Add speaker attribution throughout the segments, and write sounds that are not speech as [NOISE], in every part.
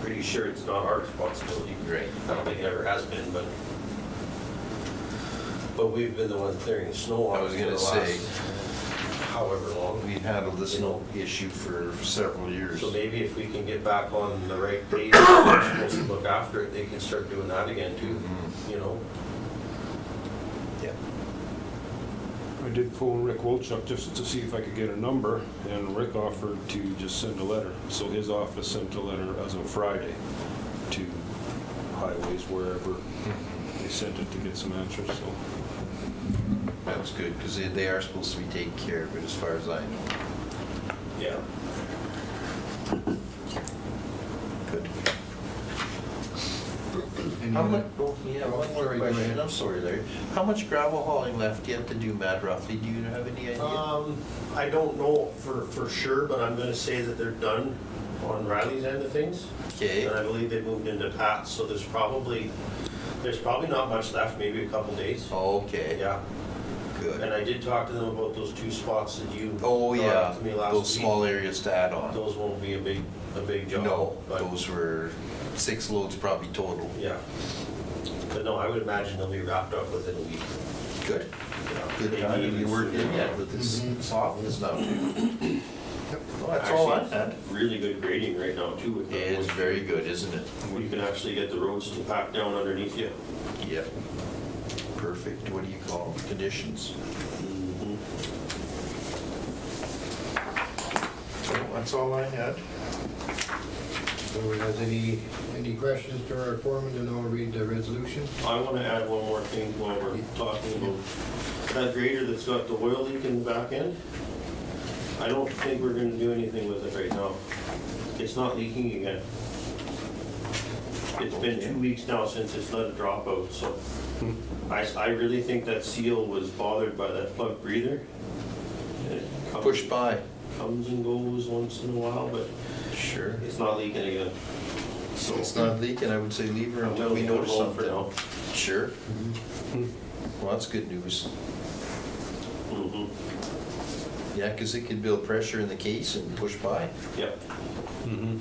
Speaker 1: pretty sure it's not our responsibility.
Speaker 2: Right.
Speaker 1: I don't think it ever has been, but, but we've been the one clearing the snow
Speaker 2: I
Speaker 1: off
Speaker 2: was
Speaker 1: for the
Speaker 2: gonna say-
Speaker 1: last however long.
Speaker 2: We handled this no issue for several years.
Speaker 1: So maybe if we can get back on the right page, we're supposed to look after it, they can start doing that again too,
Speaker 2: Mm-hmm.
Speaker 1: you know? Yeah.
Speaker 3: I did phone Rick Wolchuk just to see if I could get a number, and Rick offered to just send a letter. So his office sent a letter as of Friday to highways, wherever. They sent it to get some answers, so.
Speaker 2: That was good, because they, they are supposed to be taken care of, but as far as I know.
Speaker 1: Yeah.
Speaker 2: Good.
Speaker 1: [CLEARS THROAT]
Speaker 4: Any
Speaker 2: How much, oh,
Speaker 4: other-
Speaker 2: yeah, one more
Speaker 4: Sorry, go ahead.
Speaker 2: question, I'm sorry Larry. How much gravel hauling left yet to do, Matt roughly? Do you have any idea?
Speaker 1: Um, I don't know for, for sure, but I'm gonna say that they're done on Riley's end of things.
Speaker 2: Okay,
Speaker 1: And I believe they moved into Pat's, so there's probably, there's probably not much left, maybe a couple days.
Speaker 2: okay,
Speaker 1: Yeah,
Speaker 2: good.
Speaker 1: and I did talk to them about those two spots that you
Speaker 2: Oh,
Speaker 1: brought
Speaker 2: yeah,
Speaker 1: up to me last
Speaker 2: those
Speaker 1: week.
Speaker 2: small areas to add on.
Speaker 1: Those won't be a big, a big job.
Speaker 2: No,
Speaker 1: but-
Speaker 2: those were six loads probably total.
Speaker 1: Yeah. But no, I would imagine they'll be wrapped up within a week.
Speaker 2: Good,
Speaker 1: yeah.
Speaker 2: good
Speaker 1: Maybe
Speaker 2: time to
Speaker 1: even
Speaker 2: be working
Speaker 1: sooner.
Speaker 2: yet with this softness now. Well, That's
Speaker 1: Actually,
Speaker 2: all I had.
Speaker 1: Really good grading right now too with
Speaker 2: It
Speaker 1: that.
Speaker 2: is very good, isn't it?
Speaker 1: You can actually get the roads to pack down underneath you.
Speaker 2: Yep. Perfect, what do you call them, conditions? Mm-hmm. So That's all I had.
Speaker 4: Anyone has any, any questions to our foreman, and I'll read the resolution.
Speaker 1: I want to add one more thing while we're talking about that grader that's got the oil leak in the back end. I don't think we're going to do anything with it right now. It's not leaking again. It's been two weeks now since it's let it drop out, so
Speaker 2: Hmm.
Speaker 1: I, s- I really think that seal was bothered by that plug breather. It comes-
Speaker 2: Push by.
Speaker 1: Comes and goes once in a while, but
Speaker 2: Sure.
Speaker 1: it's not leaking again.
Speaker 2: So it's not leaking, I would say leave her until we
Speaker 1: We'll leave it
Speaker 2: notice
Speaker 1: alone for
Speaker 2: something. Sure. Well, that's good news.
Speaker 1: now. Mhm.
Speaker 2: Yeah, because it could build pressure in the case and push by.
Speaker 1: Yep.
Speaker 3: Mm-hmm.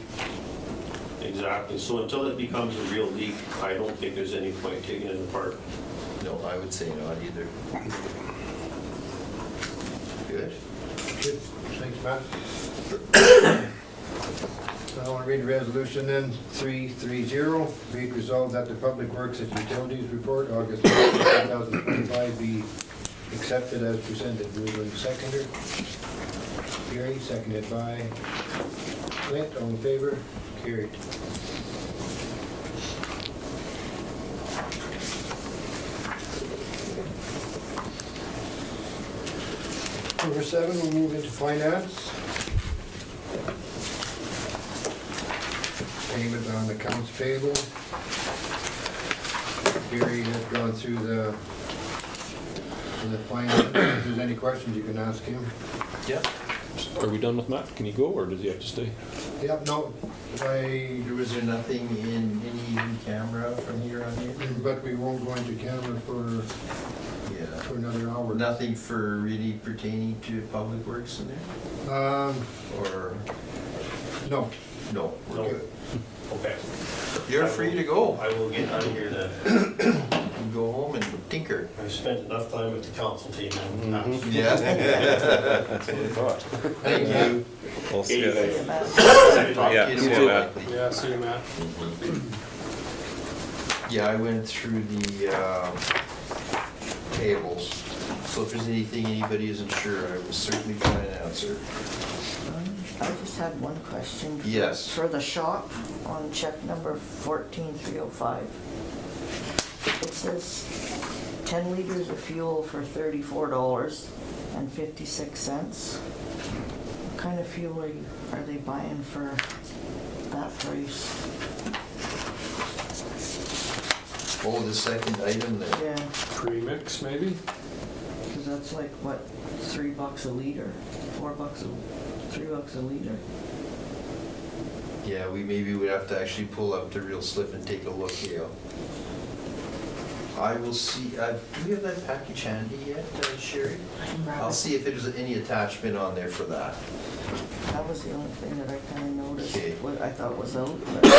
Speaker 1: Exactly, so until it becomes a real leak, I don't think there's any point taking it apart.
Speaker 2: No, I would say not either. Good.
Speaker 4: Good, thanks, Pat. I want to read the resolution then, 330, be it resolved that the Public Works and Utilities Report, August 2025, be accepted as presented. Moved and seconded. Carried, seconded by Clint, all in favor? Carried. Number seven, we'll move into finance. Payment on accounts payable. Gary has gone through the, through the finance. If there's any questions, you can ask him.
Speaker 2: Yep.
Speaker 3: Are we done with Matt? Can he go, or does he have to stay?
Speaker 4: Yep, no, I,
Speaker 2: Was there nothing in any in camera from here on in?
Speaker 4: but we won't go into camera for,
Speaker 2: Yeah.
Speaker 4: for another hour.
Speaker 2: Nothing for really pertaining to public works in there?
Speaker 4: Um,
Speaker 2: Or,
Speaker 4: no,
Speaker 2: no? we're
Speaker 1: No.
Speaker 2: good.
Speaker 1: Okay.
Speaker 2: You're free to go.
Speaker 1: I will get out of here then.
Speaker 2: You can Go home and tinker.
Speaker 1: I've spent enough time with the council team. in the
Speaker 2: Mm-hmm.
Speaker 1: past.
Speaker 2: [LAUGHS] Yeah. Thank you.
Speaker 5: We'll see you later.
Speaker 2: Talk to
Speaker 5: Yeah,
Speaker 2: you
Speaker 5: see you,
Speaker 2: tomorrow.
Speaker 5: Matt.
Speaker 3: Yeah, see you, Matt.
Speaker 2: Yeah, I went through the um, tables, so if there's anything anybody isn't sure, I will certainly try and answer.
Speaker 6: I just had one question.
Speaker 2: Yes.
Speaker 6: For the shop on check number 14305, it says 10 liters of fuel for $34.56. What kind of fuel are you, are they buying for that price?
Speaker 2: Oh, the second item there,
Speaker 6: Yeah,
Speaker 3: Premix, maybe?
Speaker 6: because that's like, what, three bucks a liter? Four bucks, a three bucks a liter?
Speaker 2: yeah, we maybe would have to actually pull up the real slip and take a look, Gail. I will see, uh, do we have that package handy yet, uh, Sherry? I'll see if there's any attachment on there for that.
Speaker 6: That was the only thing that I kind of noticed,
Speaker 2: Okay.
Speaker 6: what I thought was out. but-